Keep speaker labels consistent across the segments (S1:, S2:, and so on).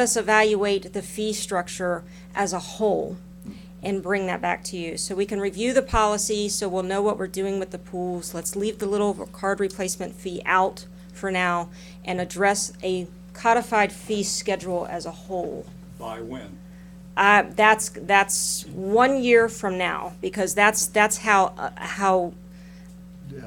S1: us evaluate the fee structure as a whole and bring that back to you. So we can review the policy, so we'll know what we're doing with the pools. Let's leave the little card replacement fee out for now and address a codified fee schedule as a whole.
S2: By when?
S1: Uh, that's, that's one year from now, because that's, that's how, uh, how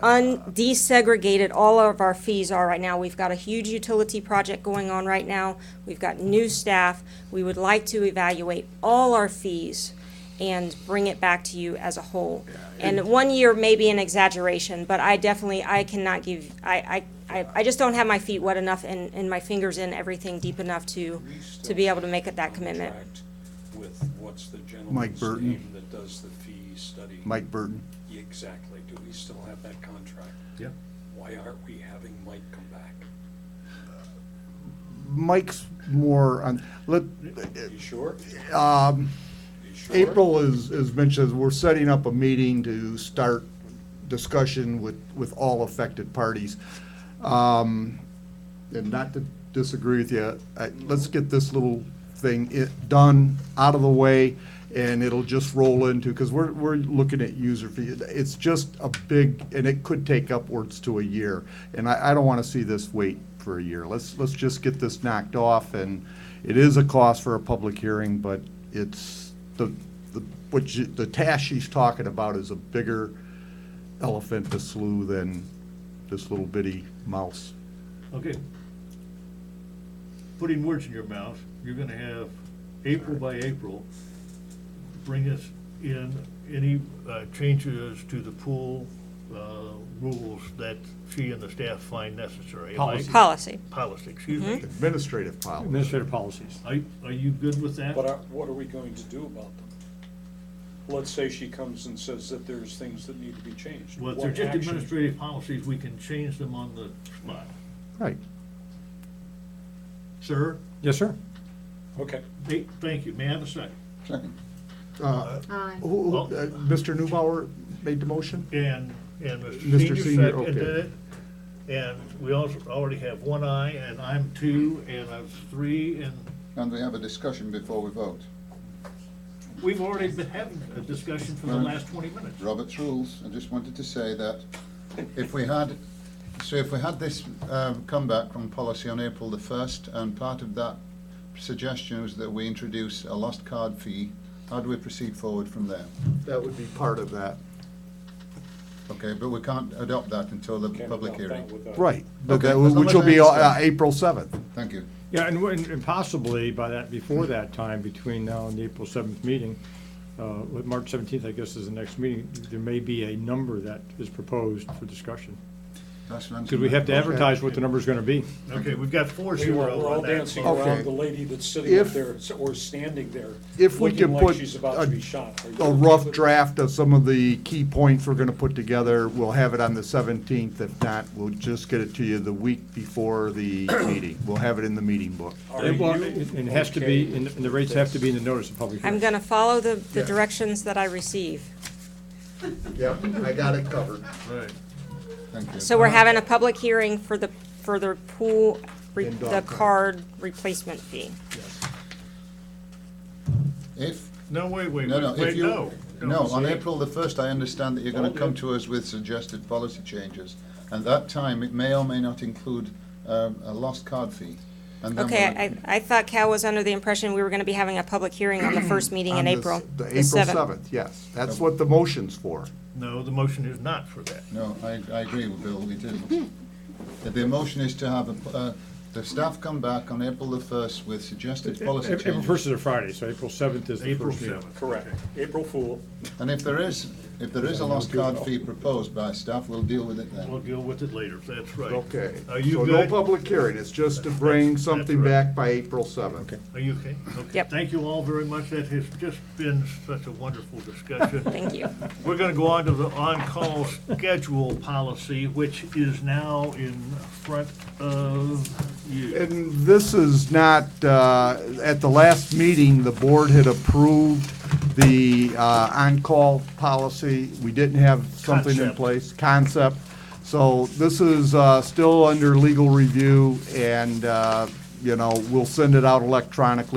S1: undesegregated all of our fees are right now. We've got a huge utility project going on right now. We've got new staff. We would like to evaluate all our fees and bring it back to you as a whole. And one year may be an exaggeration, but I definitely, I cannot give, I, I, I- I just don't have my feet wet enough and, and my fingers in everything deep enough to,
S2: We still
S1: to be able to make it that commitment.
S2: contract With what's the
S3: Mike
S2: gentleman's
S3: Burton.
S2: name that does the fee study?
S3: Mike Burton.
S2: Exactly. Do we still have that contract?
S4: Yeah.
S2: Why aren't we having Mike come back?
S3: Mike's more on, let,
S2: You sure?
S3: Uh, um,
S2: You sure?
S3: April is, as Mitch says, we're setting up a meeting to start discussion with, with all affected parties. Um, and not to disagree with you, I, let's get this little thing it, done, out of the way, and it'll just roll into, cause we're, we're looking at user fee. It's just a big, and it could take upwards to a year, and I, I don't wanna see this wait for a year. Let's, let's just get this knocked off, and it is a cost for a public hearing, but it's, the, the, what you, the task she's talking about is a bigger elephant to slew than this little bitty mouse.
S4: Okay. Putting words in your mouth, you're gonna have April by April, bring us in any uh, changes to the pool uh, rules that she and the staff find necessary. Am I-
S5: Policy.
S1: Policy.
S4: Policy, excuse
S3: Mm-hmm.
S4: me.
S3: Administrative policy.
S5: Administrative policies.
S4: Are, are you good with that?
S2: But are- what are we going to do about them? Let's say she comes and says that there's things that need to be changed.
S4: Well, if
S2: What
S4: they're just
S2: actions-
S4: administrative policies, we can change them on the spot.
S3: Right.
S4: Sir,
S5: Yes, sir.
S2: Okay.
S4: hey, thank you. May I have a second?
S3: Uh, Who, who- uh, Mr. Newbauer made the motion?
S4: And, and
S3: Mr.
S4: Mr.
S3: Uh, Senior,
S4: Senior
S3: okay.
S4: seconded it. And we also already have one eye, and I'm two, and I'm three, and
S6: And we have a discussion before we vote.
S4: we've already been having a discussion for the
S6: Right.
S4: last twenty minutes.
S6: Robert's rules, I just wanted to say that if we had, so if we had this um, comeback from policy on April the 1st, and part of that suggestion was that we introduce a lost card fee, how do we proceed forward from there?
S3: That would be part of that.
S6: Okay, but we can't adopt that until the
S2: Can't
S6: public
S2: adopt
S6: hearing.
S2: that without-
S3: Right, but
S6: Okay,
S3: that,
S6: as long
S3: which
S6: as
S3: will
S6: I
S3: be uh,
S6: understand.
S3: April 7th.
S6: Thank you.
S5: Yeah, and when- and possibly by that, before that time, between now and the April 7th meeting, uh, with March 17th, I guess, is the next meeting, there may be a number that is proposed for discussion.
S6: That's an answer.
S5: Because we have to advertise what the number's going to be.
S4: Okay, we've got four
S2: We were, we're
S4: zero
S2: all
S4: on that.
S2: dancing
S4: vote.
S3: Okay.
S2: around the lady that's sitting up
S3: If-
S2: there, or standing there.
S3: If we
S2: looking
S3: could
S2: like
S3: put
S2: She's about to
S3: a-
S2: be shot. Are you
S3: A rough
S2: okay with-
S3: draft of some of the key points we're gonna put together, we'll have it on the 17th. If not, we'll just get it to you the week before the meeting. We'll have it in the meeting book.
S2: Are
S5: It will-
S2: you
S5: it has to
S2: okay
S5: be, and the rates have to be in the notice of public
S1: I'm
S5: hearing.
S1: gonna follow the, the directions that I receive.
S3: Yep, I got it covered.
S4: Right.
S6: Thank you.
S1: So we're having a public hearing for the, for the pool, re-
S3: And
S1: the
S3: dog
S1: card replacement fee.
S6: If,
S4: No, wait, wait,
S6: no, no,
S4: wait,
S6: if
S4: wait,
S6: you.
S4: no.
S6: No, on
S4: see?
S6: April the 1st, I understand that you're going to come to us with suggested policy changes. And that time, it may or may not include um, a lost card fee. And then
S1: Okay,
S6: we'll-
S1: I, I thought Cal was under the impression we were gonna be having a public hearing on the first meeting in
S3: On the s-
S1: April.
S3: The
S1: the
S3: April
S1: 7th.
S3: 7th, yes. That's what the motion's for.
S4: No, the motion is not for that.
S6: No, I, I agree with Bill, it isn't. The emotion is to have, a- uh, the staff come back on April the first with suggested policy
S5: April 1st
S6: changes.
S5: is a Friday, so April 7th is the
S4: April
S5: first meeting.
S4: seventh.
S2: Correct. April Fool.
S6: And if there is, if there is a lost card fee proposed by staff, we'll deal with it
S4: We'll
S6: then.
S4: deal with it later, that's right.
S3: Okay.
S4: Are you
S3: So no
S4: good?
S3: public hearing, it's just to bring something back by April 7th.
S4: Are you okay? Okay.
S1: Yep.
S4: Thank you all very much. That has just been such a wonderful discussion.
S1: Thank you.
S4: We're gonna go on to the on-call schedule policy, which is now in front of you.
S3: And this is not, uh, at the last meeting, the board had approved the uh, on-call policy. We didn't have something in
S4: Concept.
S3: place, concept. So this is uh, still under legal review, and uh, you know, we'll send it out electronically